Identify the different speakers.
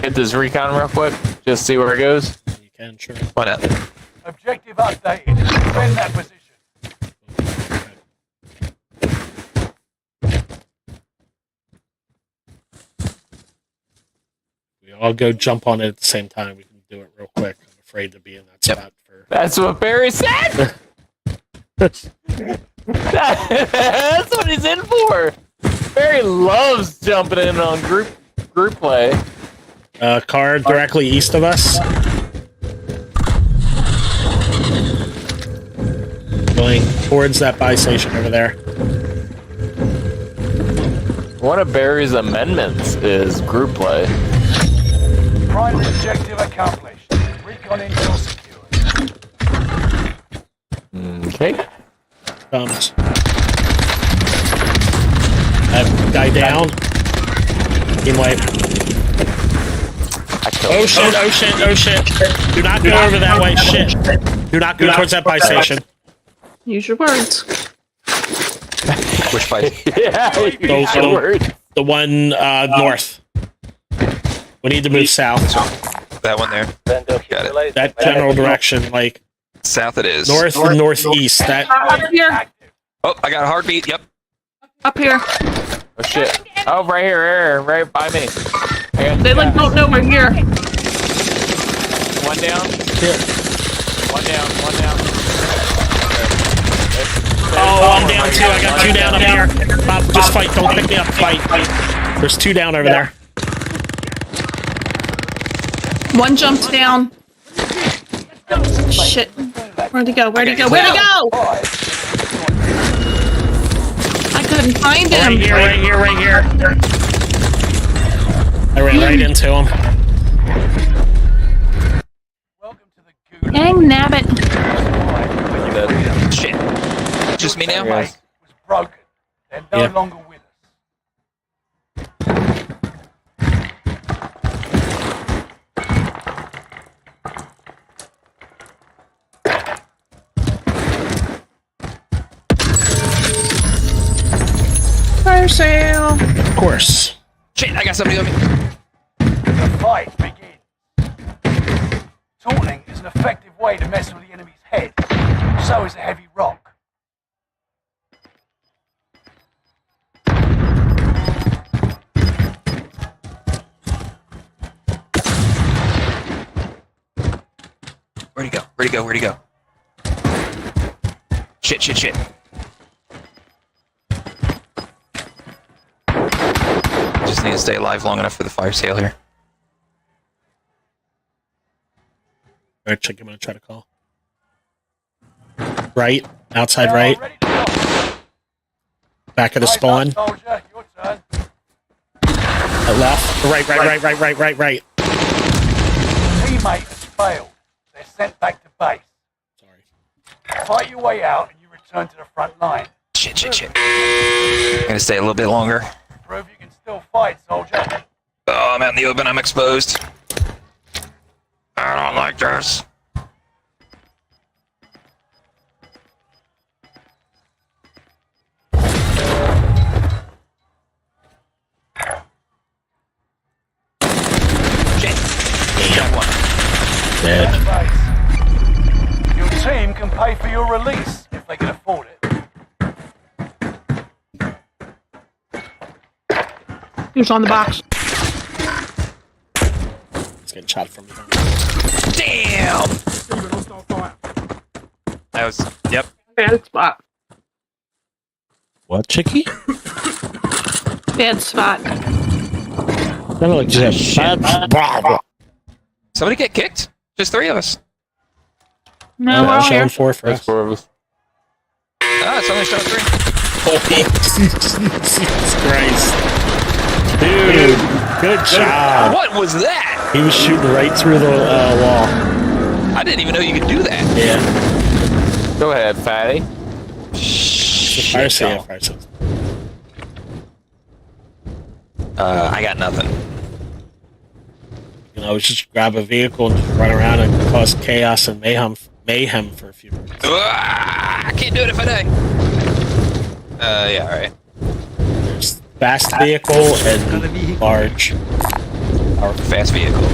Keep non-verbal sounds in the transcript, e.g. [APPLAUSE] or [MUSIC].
Speaker 1: hit this recon real quick? Just see where it goes.
Speaker 2: You can, sure.
Speaker 1: Why not?
Speaker 3: Objective updated. Defend that position.
Speaker 2: We all go jump on it at the same time. We can do it real quick. I'm afraid to be in that
Speaker 4: Yep.
Speaker 2: spot for.
Speaker 1: That's what Barry said. [LAUGHS] That's what he's in for. Barry loves jumping in on group group play.
Speaker 2: Uh, car directly east of us. Going towards that buy station over there.
Speaker 1: One of Barry's amendments is group play.
Speaker 3: Primary objective accomplished. Recon intel secured.
Speaker 1: Okay. [LAUGHS]
Speaker 2: Comes. That guy down. Team wipe.
Speaker 1: I killed
Speaker 2: Oh
Speaker 1: him.
Speaker 2: shit, oh shit, oh shit. Do not go over that way, shit. Do not go towards that buy station.
Speaker 5: Use your words.
Speaker 4: Which by
Speaker 1: [LAUGHS] Yeah, you
Speaker 2: Go,
Speaker 1: got
Speaker 2: go.
Speaker 1: word.
Speaker 2: The one uh, north. We need to move south.
Speaker 4: that one there. Got it.
Speaker 2: That general direction, like
Speaker 4: South it is.
Speaker 2: north and northeast. That
Speaker 5: Up here.
Speaker 4: Oh, I got a heartbeat. Yep.
Speaker 5: Up here.
Speaker 1: Oh shit. Oh, right here, right, here, right by me. I got
Speaker 5: They like don't know we're here.
Speaker 1: one down. One down. One down.
Speaker 2: Oh, I'm down too. I got two down up here. Bob, just fight. Don't pick me up. Fight. There's two down over there.
Speaker 5: One jumped down. Shit. Where'd he go? Where'd he go? Where'd he go? I couldn't find
Speaker 2: Right
Speaker 5: him.
Speaker 2: here, right here, right here. I ran right into him.
Speaker 3: Welcome to the Gulag.
Speaker 5: Dang nabbit.
Speaker 4: Shit. Just me now,
Speaker 3: Your
Speaker 4: Mike.
Speaker 3: tank Was broken. They're no
Speaker 2: Yeah.
Speaker 3: longer with us.
Speaker 5: Fire sale.
Speaker 2: Of course.
Speaker 4: Shit, I got somebody on me.
Speaker 3: The fight begins. Taunting is an effective way to mess with the enemy's head. So is a heavy rock.
Speaker 4: Where'd he go? Where'd he go? Where'd he go? Shit, shit, shit. Just need to stay alive long enough for the fire sale here.
Speaker 2: All right, check. I'm gonna try to call. Right, outside
Speaker 3: Now
Speaker 2: right,
Speaker 3: I'm ready to go.
Speaker 2: back of the
Speaker 3: Rise up,
Speaker 2: spawn,
Speaker 3: Soldier, your turn.
Speaker 2: at left, right, right, right, right, right, right, right.
Speaker 3: Teammate has failed. They're sent back to base.
Speaker 2: Sorry.
Speaker 3: Fight your way out and you return to the front line.
Speaker 4: Shit, shit, shit. I'm gonna stay a little bit longer.
Speaker 3: Prove you can still fight, soldier.
Speaker 4: Oh, I'm out in the open. I'm exposed. I don't like this. Shit. Got one.
Speaker 2: Dead.
Speaker 3: Base. Your team can pay for your release if they can afford it.
Speaker 5: Who's on the box?
Speaker 2: He's getting shot from behind.
Speaker 4: Damn. That was. Yep.
Speaker 5: Bad spot.
Speaker 6: What, Chicky?
Speaker 5: Bad spot.
Speaker 6: That looks like bad.
Speaker 4: Somebody get kicked. Just three of us.
Speaker 5: No, we're all
Speaker 2: showing
Speaker 5: here.
Speaker 2: four for
Speaker 1: That's
Speaker 2: us.
Speaker 1: four of us.
Speaker 4: Ah, it's only shot three.
Speaker 2: Jesus [LAUGHS] Christ. Dude, good job.
Speaker 4: What was that?
Speaker 2: He was shooting right through the uh,
Speaker 4: I didn't even know you could do that.
Speaker 2: wall. Yeah.
Speaker 1: Go ahead, fatty.
Speaker 2: Fire
Speaker 4: Shit,
Speaker 2: sale,
Speaker 4: y'all.
Speaker 2: fire sale.
Speaker 4: Uh, I got nothing.
Speaker 2: You know, just grab a vehicle and just run around and cause chaos and mayhem mayhem for a few minutes.
Speaker 4: Ah, I can't do it if I die. Uh, yeah, alright.
Speaker 2: There's Fast vehicle and large.
Speaker 4: Fast vehicle.